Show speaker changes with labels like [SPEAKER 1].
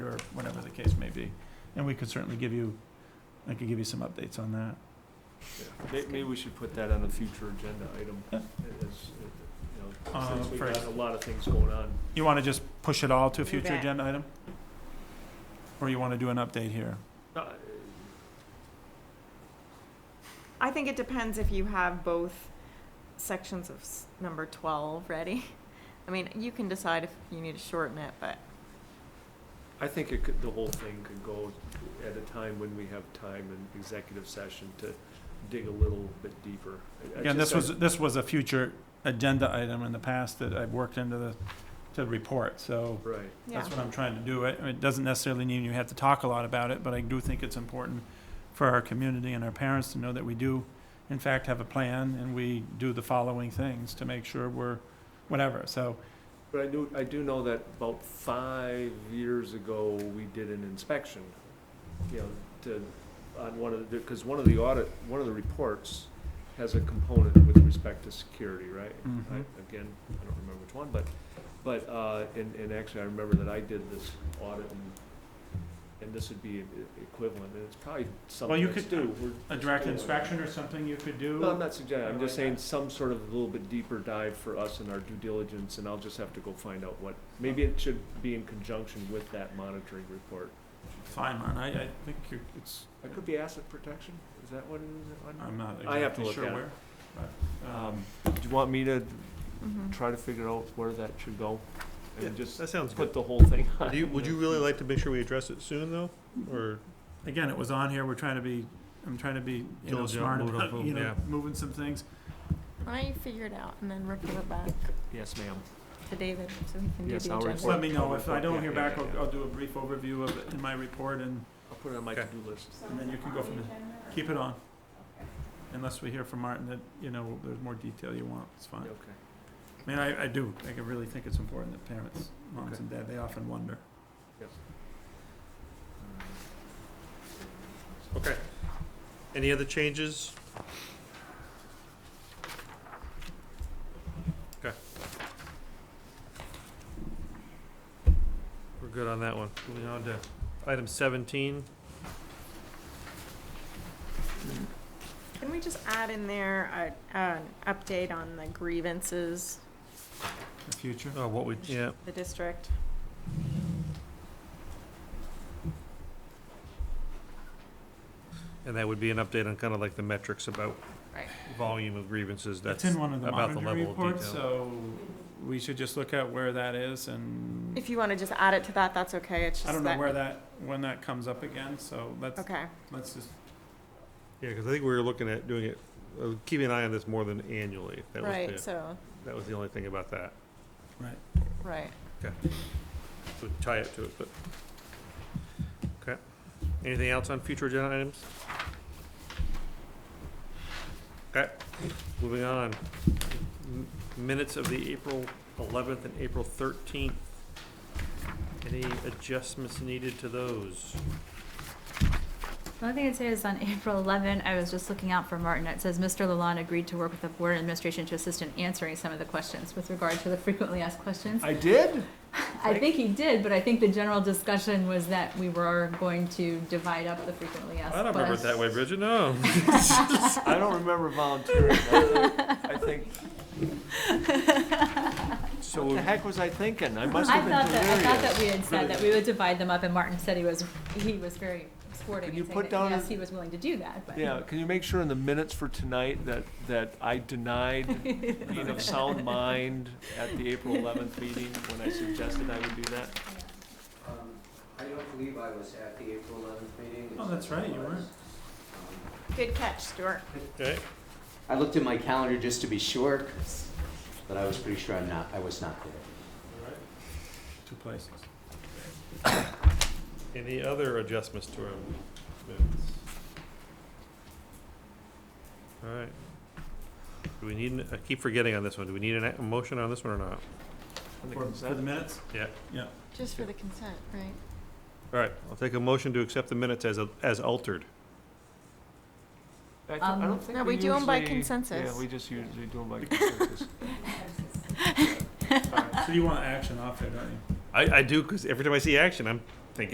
[SPEAKER 1] case may be. And we could certainly give you, I could give you some updates on that.
[SPEAKER 2] May- Maybe we should put that on a future agenda item,
[SPEAKER 1] Yeah.
[SPEAKER 2] as, you know,
[SPEAKER 1] Uh,
[SPEAKER 2] since we've got
[SPEAKER 1] first.
[SPEAKER 2] a lot of things going on.
[SPEAKER 1] You want to just push it all to a
[SPEAKER 3] Do
[SPEAKER 1] future
[SPEAKER 3] that.
[SPEAKER 1] agenda item? Or you want to do an update here?
[SPEAKER 2] Uh,
[SPEAKER 3] I think it depends if you have both sections of s- number twelve ready. I mean, you can decide if you need to shorten it, but
[SPEAKER 2] I think it could, the whole thing could go at a time when we have time in executive session to dig a little bit deeper. I- I
[SPEAKER 1] Again,
[SPEAKER 2] just-
[SPEAKER 1] this was, this was a future agenda item in the past that I've worked into the, to the report, so
[SPEAKER 2] Right,
[SPEAKER 3] yeah.
[SPEAKER 1] that's what I'm trying to do. It, it doesn't necessarily mean you have to talk a lot about it, but I do think it's important for our community and our parents to know that we do, in fact, have a plan and we do the following things to make sure we're, whatever, so.
[SPEAKER 2] but I do, I do know that about five years ago, we did an inspection, you know, to, on one of the, because one of the audit, one of the reports has a component with respect to security, right? I,
[SPEAKER 1] mhm.
[SPEAKER 2] again, I don't remember which one, but, but, uh, and, and actually, I remember that I did this audit and, and this would be e-, equivalent, and it's probably
[SPEAKER 1] Well,
[SPEAKER 2] something
[SPEAKER 1] you
[SPEAKER 2] that's
[SPEAKER 1] could
[SPEAKER 2] due.
[SPEAKER 1] do A
[SPEAKER 2] We're just
[SPEAKER 1] direct
[SPEAKER 2] doing it.
[SPEAKER 1] inspection or something you could do?
[SPEAKER 2] No, I'm not suggesting, I'm
[SPEAKER 1] Something
[SPEAKER 2] just
[SPEAKER 1] like
[SPEAKER 2] saying
[SPEAKER 1] that.
[SPEAKER 2] some sort of a little bit deeper dive for us in our due diligence, and I'll just have to go find out what, maybe it should be in conjunction with that monitoring report.
[SPEAKER 1] Fine, man, I, I think you're, it's,
[SPEAKER 2] It could be asset protection, is that what it is?
[SPEAKER 1] I'm not
[SPEAKER 2] I have to
[SPEAKER 1] exactly
[SPEAKER 2] look
[SPEAKER 1] sure
[SPEAKER 2] at it.
[SPEAKER 1] where. but,
[SPEAKER 2] Um,
[SPEAKER 1] um,
[SPEAKER 2] Do you want me to
[SPEAKER 3] Mhm.
[SPEAKER 2] try to figure out where that should go?
[SPEAKER 4] Yeah,
[SPEAKER 2] And just
[SPEAKER 4] That sounds good.
[SPEAKER 2] put the whole thing on?
[SPEAKER 4] Do you, would you really like to make sure we address it soon, though, or?
[SPEAKER 1] Again, it was on here, we're trying to be, I'm trying to be, you know,
[SPEAKER 4] Diligent,
[SPEAKER 1] smart
[SPEAKER 4] move it up
[SPEAKER 1] about,
[SPEAKER 4] a
[SPEAKER 1] you
[SPEAKER 4] little,
[SPEAKER 1] know,
[SPEAKER 4] yeah.
[SPEAKER 1] moving some things.
[SPEAKER 3] Why don't you figure it out and then report back
[SPEAKER 2] Yes, ma'am.
[SPEAKER 3] to David so he can do
[SPEAKER 2] Yes,
[SPEAKER 3] the
[SPEAKER 2] I'll
[SPEAKER 1] Just
[SPEAKER 3] agenda?
[SPEAKER 2] report.
[SPEAKER 1] let me know, if I don't hear
[SPEAKER 2] Yeah, yeah,
[SPEAKER 1] back, I'll,
[SPEAKER 2] yeah.
[SPEAKER 1] I'll do a brief overview of it in my report and
[SPEAKER 2] I'll put it on my
[SPEAKER 4] Okay.
[SPEAKER 2] to-do list.
[SPEAKER 1] And then you can go from there. keep it on. Unless we hear from Martin that, you know, there's more detail you want, it's fine.
[SPEAKER 2] Okay.
[SPEAKER 1] I mean, I, I do, I really think it's important that parents, moms and dad, they often wonder.
[SPEAKER 4] Okay. Any other changes? Okay. We're good on that one. Moving on to item seventeen.
[SPEAKER 3] Can we just add in there a, an update on the grievances,
[SPEAKER 1] The future?
[SPEAKER 4] Oh, what we, yeah,
[SPEAKER 3] the district?
[SPEAKER 4] and that would be an update on kind of like the metrics about
[SPEAKER 3] Right.
[SPEAKER 4] volume of grievances,
[SPEAKER 1] That's
[SPEAKER 4] that's
[SPEAKER 1] in one of the
[SPEAKER 4] about the
[SPEAKER 1] monitoring
[SPEAKER 4] level of
[SPEAKER 1] reports,
[SPEAKER 4] detail.
[SPEAKER 1] so we should just look at where that is and
[SPEAKER 3] If you wanna just add it to that, that's okay, it's just
[SPEAKER 1] I
[SPEAKER 3] that.
[SPEAKER 1] don't know where that, when that comes up again, so let's,
[SPEAKER 3] Okay,
[SPEAKER 1] let's just,
[SPEAKER 4] Yeah, because I think we were looking at doing it, uh, keeping an eye on this more than annually. That was
[SPEAKER 3] right,
[SPEAKER 4] the,
[SPEAKER 3] so,
[SPEAKER 4] that was the only thing about that.
[SPEAKER 3] right.
[SPEAKER 4] So tie it to it, but. Okay. Anything else on future agenda items? Okay, moving on. M- Minutes of the April eleventh and April thirteenth. Any adjustments needed to those?
[SPEAKER 5] The only thing I'd say is on April 11, I was just looking out for Martin. It says, "Mr. Lalonde agreed to work with the Board Administration to assist in answering some of the questions with regard to the frequently asked questions."
[SPEAKER 2] I did?
[SPEAKER 5] I think he did, but I think the general discussion was that we were going to divide up the frequently asked
[SPEAKER 4] I
[SPEAKER 5] questions.
[SPEAKER 4] don't remember it that way, Bridget, no.
[SPEAKER 2] I don't remember volunteering. I I think,
[SPEAKER 4] So,
[SPEAKER 2] what the
[SPEAKER 4] we'll-
[SPEAKER 2] heck was I thinking? I must
[SPEAKER 5] I
[SPEAKER 2] have been
[SPEAKER 5] thought that, I thought that we
[SPEAKER 2] delirious.
[SPEAKER 5] had said that we would divide them up, and Martin said he was, he was very
[SPEAKER 2] Can
[SPEAKER 5] sporting
[SPEAKER 2] you
[SPEAKER 5] in
[SPEAKER 2] put
[SPEAKER 5] saying that,
[SPEAKER 2] down
[SPEAKER 5] yes,
[SPEAKER 2] a-
[SPEAKER 5] he was willing to do that, but.
[SPEAKER 2] Yeah, can you make sure in the minutes for tonight that, that I denied being of sound mind at the April eleventh meeting when I suggested I would do that?
[SPEAKER 6] Um, I don't believe I was at the April eleventh meeting. It
[SPEAKER 1] Oh, that's
[SPEAKER 6] says I
[SPEAKER 1] right, you
[SPEAKER 6] was.
[SPEAKER 1] weren't.
[SPEAKER 6] Um,
[SPEAKER 3] Good catch, Stuart.
[SPEAKER 4] okay,
[SPEAKER 6] I looked at my calendar just to be sure, 'cause- but I was pretty sure I'm not, I was not there.
[SPEAKER 1] two places.
[SPEAKER 4] any other adjustments to our minutes? All right. Do we need, an- I keep forgetting on this one, do we need an a a motion on this one or not?
[SPEAKER 2] On the
[SPEAKER 1] For, for
[SPEAKER 2] consent?
[SPEAKER 1] the minutes?
[SPEAKER 4] Yeah.
[SPEAKER 1] Yeah.
[SPEAKER 3] Just for the consent, right?
[SPEAKER 4] All right, I'll take a motion to accept the minutes as, as altered.
[SPEAKER 2] I don't- I don't
[SPEAKER 5] Um,
[SPEAKER 2] think
[SPEAKER 3] No, we do 'em by
[SPEAKER 2] usually-
[SPEAKER 3] consensus.
[SPEAKER 2] Yeah, we just usually do them by consensus.
[SPEAKER 1] So you want action off there, don't you?
[SPEAKER 4] I, I do, because every time I see action, I'm